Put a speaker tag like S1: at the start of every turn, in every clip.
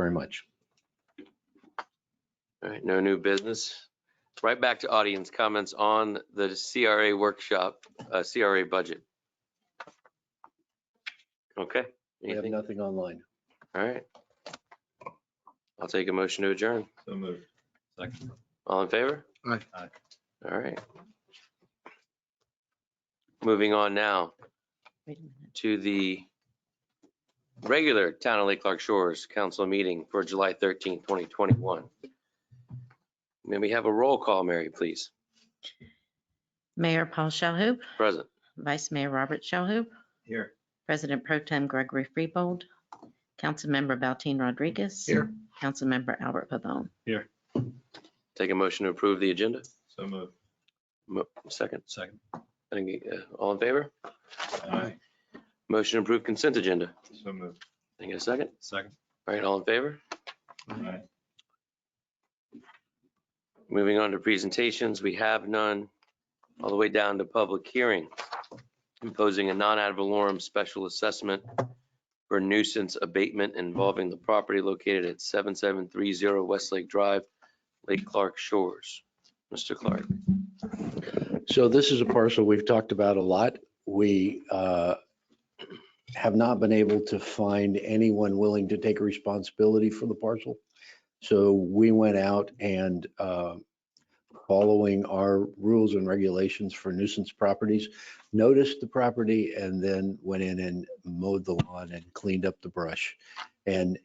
S1: very much.
S2: All right, no new business. Right back to audience comments on the CRA workshop, uh, CRA budget. Okay,
S1: We have
S2: anything?
S1: nothing online.
S2: All right. I'll take a motion to adjourn.
S3: So moved. Second.
S2: All in favor?
S1: Aye.
S3: Aye.
S2: All right. Moving on now
S4: Wait a minute.
S2: to the regular Town of Lake Clark Shores Council meeting for July 13, 2021. May we have a roll call, Mary, please?
S4: Mayor Paul Shalhoub,
S2: Present.
S4: Vice Mayor Robert Shalhoub,
S3: Here.
S4: President Pro Tem Gregory Freebold, Councilmember Valteen Rodriguez.
S1: Here.
S4: Councilmember Albert Pavone.
S2: Take a motion to approve the agenda.
S3: So moved.
S2: Mo- Second,
S3: Second.
S2: I think, uh, all in favor?
S3: Aye.
S2: Motion to approve consent agenda.
S3: So moved.
S2: Can I get a second?
S3: Second.
S2: All right, all in favor?
S3: Aye.
S2: Moving on to presentations, we have none, all the way down to public hearing. Imposing a non-ad valorem special assessment for nuisance abatement involving the property located at 7730 Westlake Drive, Lake Clark Shores. Mr. Clark,
S1: So this is a parcel we've talked about a lot. We uh, have not been able to find anyone willing to take responsibility for the parcel. So we went out and uh, following our rules and regulations for nuisance properties, noticed the property and then went in and mowed the lawn and cleaned up the brush and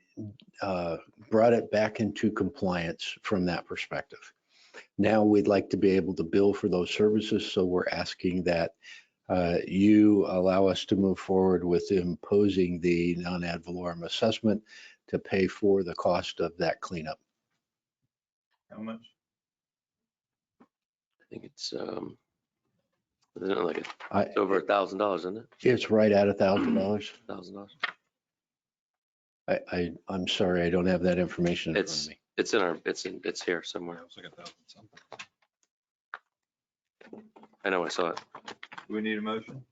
S1: uh, brought it back into compliance from that perspective. Now we'd like to be able to bill for those services, so we're asking that uh, you allow us to move forward with imposing the non-ad valorem assessment to pay for the cost of that cleanup.
S3: How much?
S2: I think it's, um, isn't it like, it's
S1: I-
S2: over a thousand dollars, isn't it?
S1: It's right at a thousand dollars.
S2: Thousand dollars?
S1: I, I, I'm sorry, I don't have that information in front
S2: It's,
S1: of me.
S2: it's in our, it's in, it's here somewhere.
S3: was like a thousand something.
S2: I know I saw it.
S3: Do we need a motion?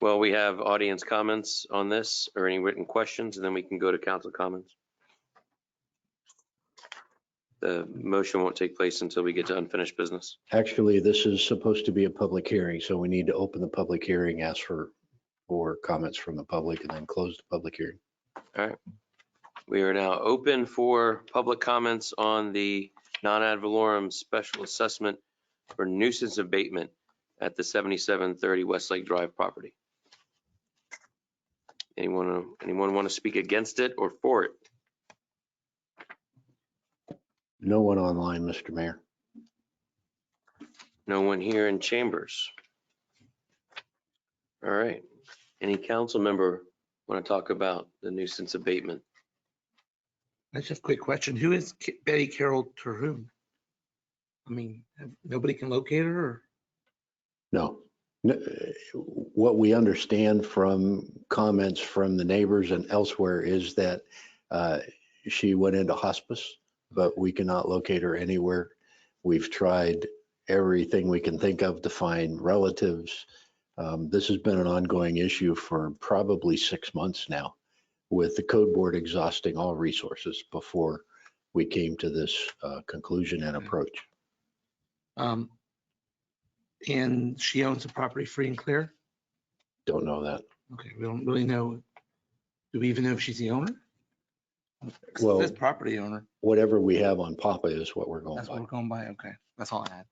S2: Well, we have audience comments on this or any written questions, and then we can go to council comments. The motion won't take place until we get to unfinished business.
S1: Actually, this is supposed to be a public hearing, so we need to open the public hearing, ask for, for comments from the public, and then close the public hearing.
S2: We are now open for public comments on the non-ad valorem special assessment for nuisance abatement at the 7730 Westlake Drive property. Anyone, anyone want to speak against it or for it?
S1: No one online, Mr. Mayor.
S2: No one here in chambers. All right. Any council member want to talk about the nuisance abatement?
S5: That's just a quick question. Who is K- Betty Carol Terhune? I mean, nobody can locate her or?
S1: No. No, uh, What we understand from comments from the neighbors and elsewhere is that uh, she went into hospice, but we cannot locate her anywhere. We've tried everything we can think of to find relatives. Um, This has been an ongoing issue for probably six months now, with the code board exhausting all resources before we came to this uh, conclusion and
S5: Okay.
S1: approach.
S5: um, And she owns the property free and clear?
S1: Don't know that.
S5: Okay, we don't really know. Do we even know if she's the owner?
S1: Well-
S5: This property owner,
S1: Whatever we have on Papa is what we're going
S5: that's
S1: by.
S5: what we're going by. Okay, that's all I had.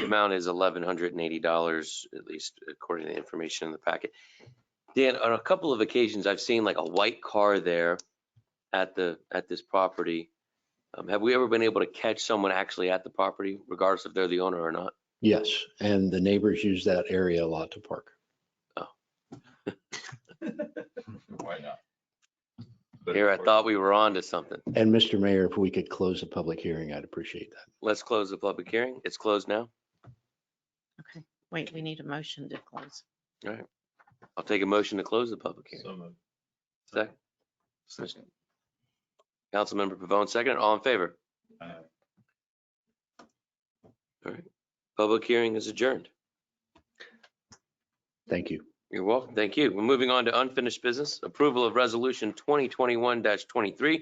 S2: The amount is eleven hundred and eighty dollars, at least according to the information in the packet. Dan, on a couple of occasions, I've seen like a white car there at the, at this property. Um, Have we ever been able to catch someone actually at the property regardless if they're the owner or not?
S1: Yes, and the neighbors use that area a lot to park.
S3: Why not? But
S2: Here, I
S3: of course-
S2: thought we were on to something.
S1: And Mr. Mayor, if we could close the public hearing, I'd appreciate that.
S2: Let's close the public hearing. It's closed now.
S4: Okay, wait, we need a motion to close.
S2: I'll take a motion to close the public hearing.
S3: So moved.
S2: Second. Councilmember Pavone, second. All in favor?
S3: Aye.
S2: Public hearing is adjourned.
S1: Thank you.
S2: You're welcome. Thank you. We're moving on to unfinished business. Approval of Resolution 2021-23,